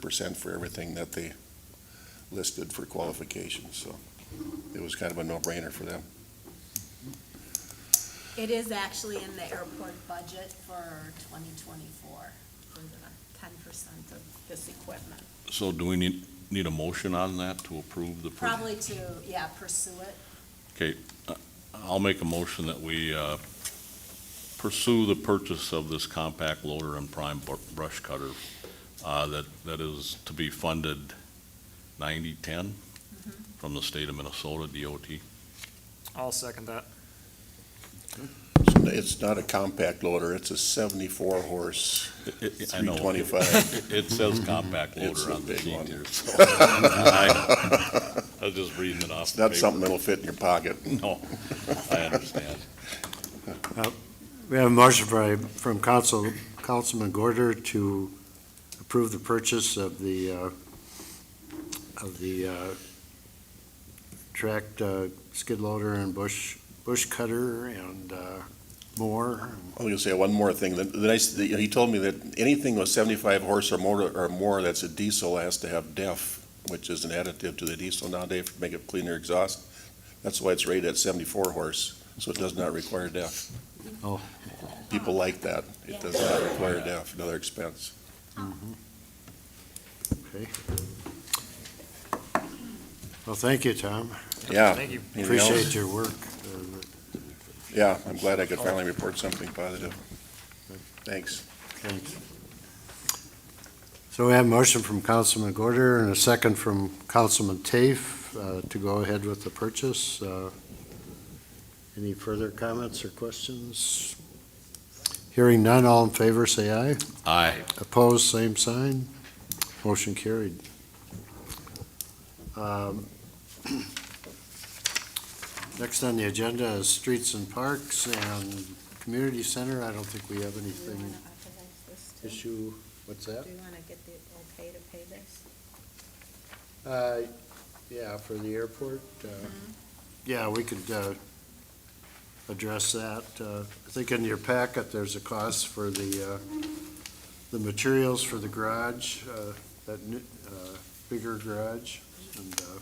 percent for everything that they listed for qualifications, so it was kind of a no-brainer for them. It is actually in the airport budget for twenty twenty-four, for the ten percent of this equipment. So do we need, need a motion on that to approve the? per- Probably to, yeah, pursue it. I'll make a motion that we uh, pursue the purchase of this compact loader and prime br- brush cutter uh, that, that is to be funded ninety-ten from the state of Minnesota DOT. I'll second that. So It's not a compact loader, it's a seventy-four horse, It- it- I know. three twenty-five. It- It says compact It's loader a on the big sheet one. here. so- I know. I was just reading it off. It's the not paper. something that'll fit in your pocket. No, I understand. We have a motion by, from Council, Councilman Gorder to approve the purchase of the, uh, of the, uh, tracked, uh, skid loader and bush, bush cutter and, uh, more. I'm gonna say one more thing. The, the nice, the, he told me that anything with seventy-five horse or more, or more that's a diesel has to have DEF, which is an additive to the diesel nowadays to make it cleaner exhaust. That's why it's rated at seventy-four horse, so it does not require DEF. Oh. People like that. It does not require DEF, another expense. Mm-hmm. Okay. Well, thank you, Tom. Yeah. Thank you. Anything else? Appreciate your work. Uh, Yeah, I'm glad I could finally report something positive. Thanks. Thanks. So we have a motion from Councilman Gorder and a second from Councilman Tafe uh, to go ahead with the purchase. Uh, Any further comments or questions? Hearing none, all in favor, say aye. Aye. Opposed, same sign. Motion carried. Um, Next on the agenda is Streets and Parks and Community Center. I don't think we have Do you anything want to authorize this too? issue, what's that? Do you want to get the okay to pay this? Uh, yeah, for the airport, uh, yeah, we could, uh, address that. Uh, I think in your packet, there's a cost for the, uh, the materials for the garage, uh, that new, uh, bigger garage, and, uh,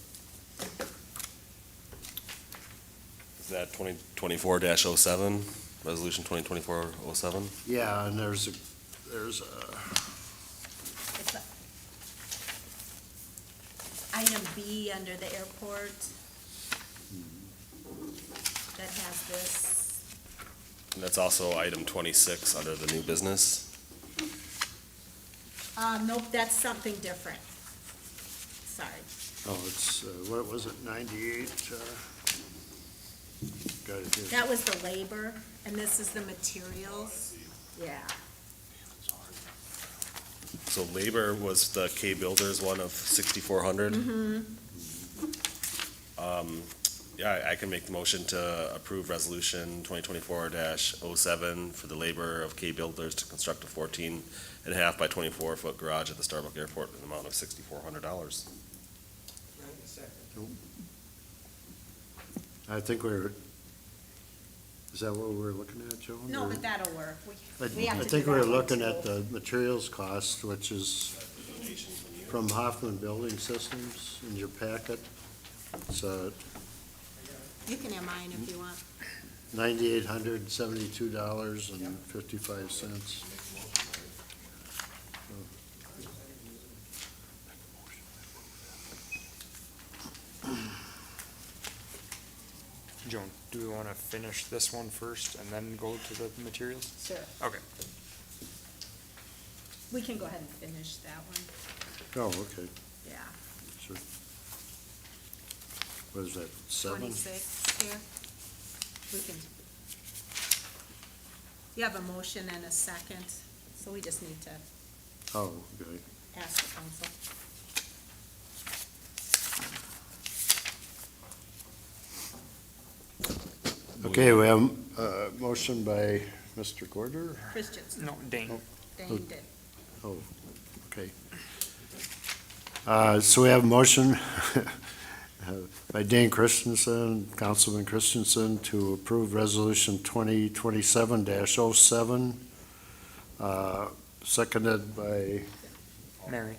Is that twenty twenty-four dash oh seven, resolution twenty twenty-four oh seven? yeah, and there's a, there's a, It's a- Item B under the airport that has this. And that's also item twenty-six under the new business. Uh, nope, that's something different. Sorry. oh, it's, uh, what was it, ninety-eight, uh? Got it here. That was the labor, and this is the materials. Yeah. So labor was the K Builders one of sixty-four hundred. Um, yeah, I- I can make the motion to approve resolution twenty twenty-four dash oh seven for the labor of K Builders to construct a fourteen and a half by twenty-four foot garage at the Starbuck Airport in the amount of sixty-four hundred dollars. I think we're, is that what we're looking at, Joan? No, or- but that'll work. We- I We have Mm-hmm. I to think do we're that one, looking too. at the materials cost, which is from Hoffman Building Systems in your packet. It's uh, You can have mine if you want. ninety-eight hundred seventy-two dollars and fifty-five cents. Joan, do we want to finish this one first and then go to the materials? Sure. Okay. We can go ahead and finish that one. Oh, okay, Yeah. sure. What is that, seven? Twenty-six here. We can. You have a motion and a second, so we just need to Oh, okay. ask the council. Okay, we have a motion by Mr. Gorder. Christiansen, No, Oh. Dane. Dane did. Okay. Uh, So we have a motion by Dan Christensen, Councilman Christensen, to approve Resolution 2027-07, uh, seconded by Mary.